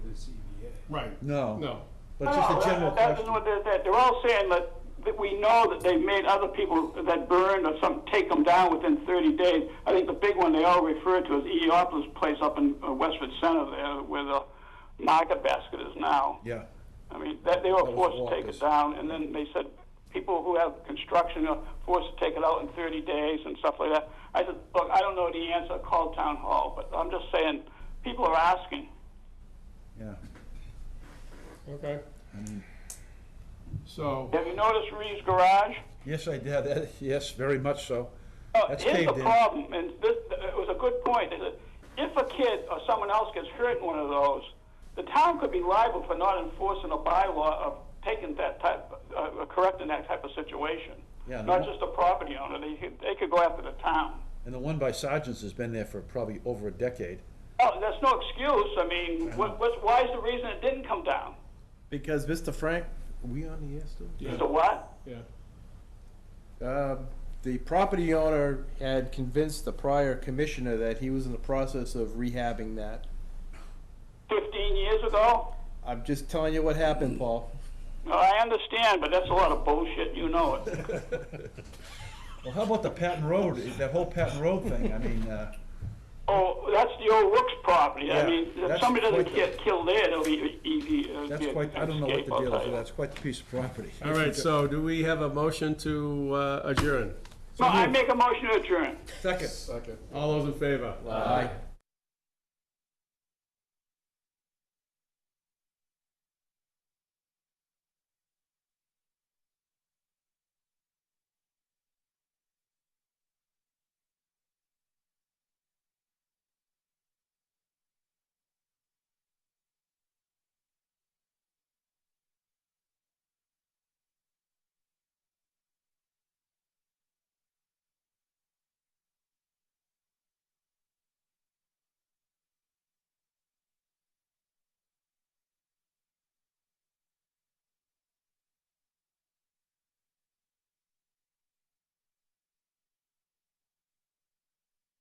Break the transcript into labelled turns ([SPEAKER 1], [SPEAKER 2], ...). [SPEAKER 1] the CBA.
[SPEAKER 2] Right,
[SPEAKER 3] No,
[SPEAKER 2] no.
[SPEAKER 3] but it's just a general
[SPEAKER 4] That's
[SPEAKER 3] question.
[SPEAKER 4] what they're, they're- they're all saying that, that we know that they've made other people that burned or some take them down within 30 days. I think the big one they all refer to is Eopolis Place up in uh, Westford Center there where the market basket is now.
[SPEAKER 3] Yeah,
[SPEAKER 4] I mean, that, they were
[SPEAKER 3] was
[SPEAKER 4] forced to take
[SPEAKER 3] Walker's.
[SPEAKER 4] it down, and then they said people who have construction are forced to take it out in 30 days and stuff like that. I said, look, I don't know the answer, call town hall, but I'm just saying, people are asking.
[SPEAKER 3] yeah.
[SPEAKER 2] Okay. So,
[SPEAKER 4] Have you noticed Reeves Garage?
[SPEAKER 3] Yes, I did, that, yes, very much so.
[SPEAKER 4] Oh,
[SPEAKER 3] That's
[SPEAKER 4] here's the
[SPEAKER 3] caved in.
[SPEAKER 4] problem, and this, it was a good point. They said, if a kid or someone else gets hurt in one of those, the town could be liable for not enforcing a bylaw of taking that type, uh, correcting that type of situation.
[SPEAKER 3] Yeah,
[SPEAKER 4] Not
[SPEAKER 3] no.
[SPEAKER 4] just a property owner, they, could- they could go after the town.
[SPEAKER 3] And the one by Sargent's has been there for probably over a decade.
[SPEAKER 4] Oh, that's no excuse, I mean, what, what's, why is the reason it didn't come down?
[SPEAKER 5] Because Mr. Frank, we on the air still?
[SPEAKER 2] yeah,
[SPEAKER 4] Mr. What?
[SPEAKER 2] yeah.
[SPEAKER 5] Uh, The property owner had convinced the prior commissioner that he was in the process of rehabbing that.
[SPEAKER 4] Fifteen years ago?
[SPEAKER 5] I'm just telling you what happened, Paul.
[SPEAKER 4] No, I understand, but that's a lot of bullshit, you know it.
[SPEAKER 3] Well, how about the Patton Road, that whole Patton Road thing, I mean, uh,
[SPEAKER 4] Oh, that's the old Rooks property. I
[SPEAKER 3] Yeah,
[SPEAKER 4] mean, if
[SPEAKER 3] that's
[SPEAKER 4] somebody doesn't
[SPEAKER 3] quite the-
[SPEAKER 4] get killed there, it'll be easy. uh,
[SPEAKER 3] that's
[SPEAKER 4] be a-
[SPEAKER 3] quite, I don't know what the
[SPEAKER 4] escape, I'll
[SPEAKER 3] deal is,
[SPEAKER 4] tell
[SPEAKER 3] with
[SPEAKER 4] you.
[SPEAKER 3] that. it's quite the piece of property.
[SPEAKER 2] All right, so do we have a motion to uh, adjourn?
[SPEAKER 4] No, I make a motion to adjourn.
[SPEAKER 3] Second.
[SPEAKER 2] All those in favor?
[SPEAKER 5] Aye.